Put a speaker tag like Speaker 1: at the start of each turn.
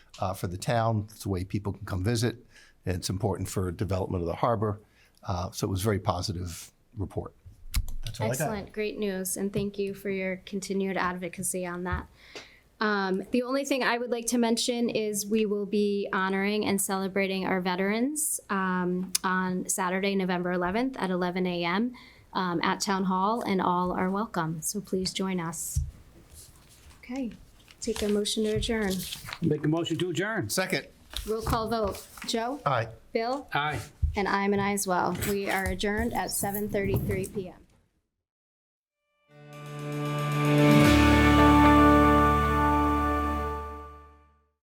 Speaker 1: uh, for the town. It's a way people can come visit. and It's important for development of the harbor. Uh, So it was a very positive report. That's all I got.
Speaker 2: Excellent, great news, and thank you for your continued advocacy on that. Um, the only thing I would like to mention is we will be honoring and celebrating our veterans um, on Saturday, November 11th at 11 a.m. Um, at Town Hall, and all are welcome. So please join us. Okay, take a motion to adjourn.
Speaker 3: Make a motion to adjourn.
Speaker 1: Second,
Speaker 2: Roll call vote. Joe,
Speaker 1: aye.
Speaker 2: Bill,
Speaker 3: Aye.
Speaker 2: and I'm an I as well. We are adjourned at 7:33 p.m.